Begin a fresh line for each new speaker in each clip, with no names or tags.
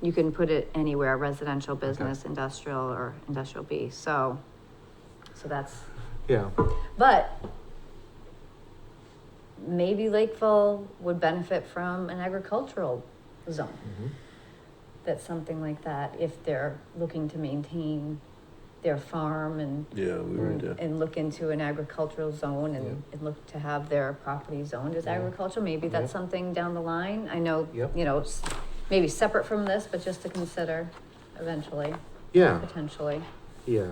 you can put it anywhere, residential, business, industrial, or industrial B, so. So that's,
Yeah,
but. Maybe Lakeville would benefit from an agricultural zone,
mhm,
that's something like that, if they're looking to maintain their farm and
Yeah, we
Right.
would, uh,
and look into an agricultural zone and, and look to have their property zoned as
Yeah.
agriculture, maybe that's
Yeah.
something down the line, I know,
Yep.
you know, s- maybe separate from this, but just to consider eventually,
yeah,
potentially.
yeah,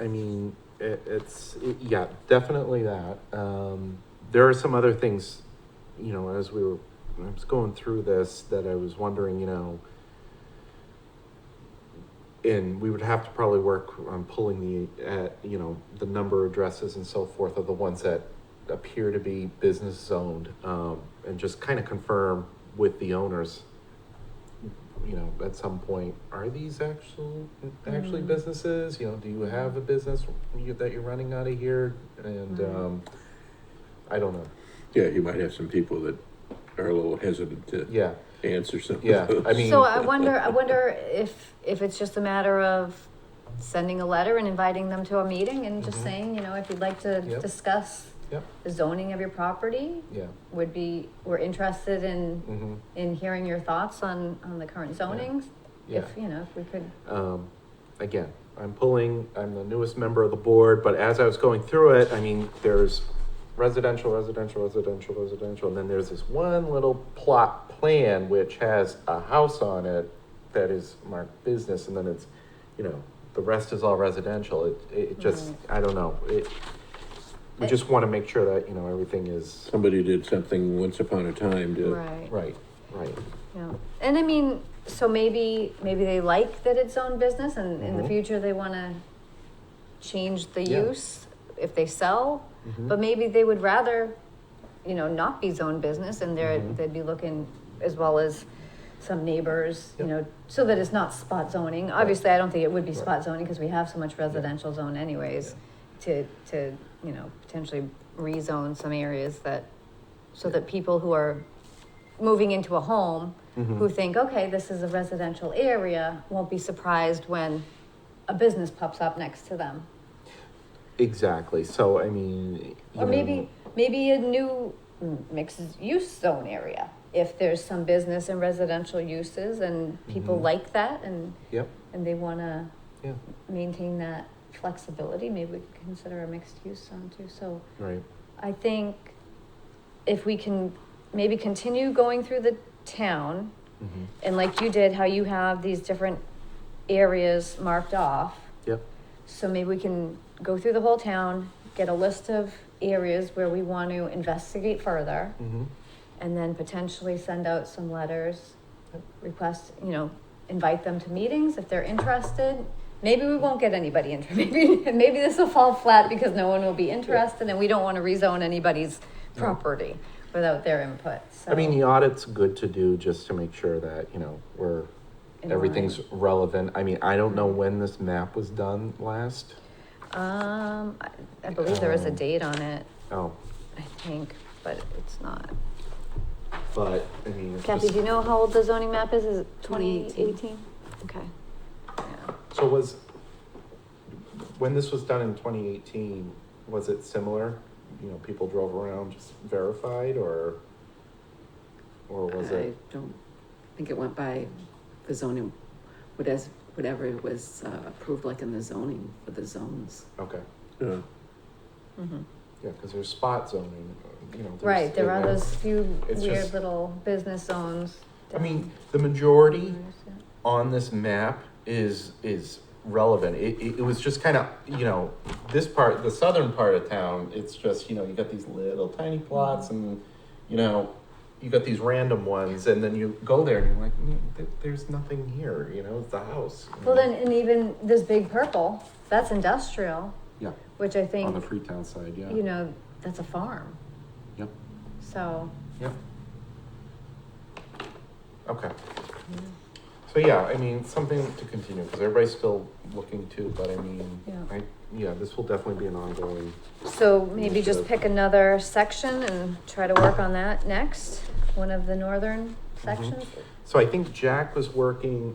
I mean, it, it's, it- yeah, definitely that. Um, there are some other things, you know, as we were, I was going through this, that I was wondering, you know, and we would have to probably work on pulling the, uh, you know, the number addresses and so forth of the ones that appear to be business zoned, um, and just kind of confirm with the owners, you know, at some point, are these actual, actually
Mm.
businesses? You know, do you have a business you- that you're running out of here? And,
Right.
um, I don't know.
yeah, you might have some people that are a little hesitant to
Yeah,
answer some of
Yeah,
those.
I mean-
So I wonder, I wonder if, if it's just a matter of sending a letter and inviting them to a meeting and just
Mhm.
saying, you know, if you'd like to
Yep.
discuss
Yep.
the zoning of your property,
yeah,
would be, we're interested in,
mm-hmm,
in hearing your thoughts on, on the current zonings,
yeah.
if, you know, if we could
um, again, I'm pulling, I'm the newest member of the board, but as I was going through it, I mean, there's residential, residential, residential, residential, and then there's this one little plot plan which has a house on it that is marked business, and then it's, you know, the rest is all residential. It, it it just, I don't know, it, we just wanna make sure that, you know, everything is,
Somebody did something once upon a time to,
Right,
right, right,
yeah. And I mean, so maybe, maybe they like that it's own business and in the
Mhm.
future they wanna change the
Yeah.
use if they sell,
Mhm.
but maybe they would rather, you know, not be zone business and they're,
Mhm.
they'd be looking as well as some neighbors, you
Yep.
know, so that it's not spot zoning. Obviously, I don't think it would be
Right.
spot zoning because we have so much residential zone anyways to, to, you know, potentially rezone some areas that, so that people who are moving into a home who think, okay, this is a residential area, won't be surprised when a business pops up next to them.
exactly, so, I mean. you
Or
know,
maybe, maybe a new mixed use zone area. If there's some business and residential uses and people
Mhm.
like that and,
Yep,
and they wanna
yeah,
maintain that flexibility, maybe we could consider a mixed use zone too, so.
right,
I think if we can maybe continue going through the town
mhm,
and like you did, how you have these different areas marked off.
yep,
So maybe we can go through the whole town, get a list of areas where we want to investigate further
mhm.
and then potentially send out some letters, request, you know, invite them to meetings if they're interested. Maybe we won't get anybody in, maybe, maybe this will fall flat because no one will be interested and we don't want to rezone anybody's
No.
property without their input, so.
I mean, the audit's good to do just to make sure that, you know, we're,
In
everything's relevant. I mean, I don't know when this map was done last.
Um, I, I believe there is a
Um,
date on it,
Oh,
I think, but it's not.
but, I mean, it's
Kathy,
just,
do you know how old the zoning map is? Is it twenty
2018.
eighteen? Okay. Yeah.
so was, when this was done in twenty eighteen, was it similar? You know, people drove around, just verified, or, or was
I
it?
don't think it went by the zoning, whatever, whatever was uh, approved like in the zoning for the zones.
Okay,
uh,
Mhm.
yeah, because there's spot zoning, you know. there's-
Right, there are
yeah.
those few
It's
weird
just-
little business zones.
I mean,
down
the majority
corners, yeah.
on this map is is relevant. It, it, it was just kind of you know this part, the southern part of town. It's just you know you got these little tiny plots, and you know you got these random ones, and then you go there and you're like, "Mm, th- there's nothing here. You know, it's the house. you
Well,
know?
then, and even this big purple, that's industrial,
yeah,
which I
on the
think,
Freetown side, yeah,
you know, that's a farm,
yep,
so.
yep. Okay. So yeah, I mean something to continue because everybody's still looking too. But I mean,
Yeah.
I, yeah, this will definitely be an ongoing.
So maybe just
Initiative.
pick another section and try to work on that next, one of the northern sections.
So I think Jack was working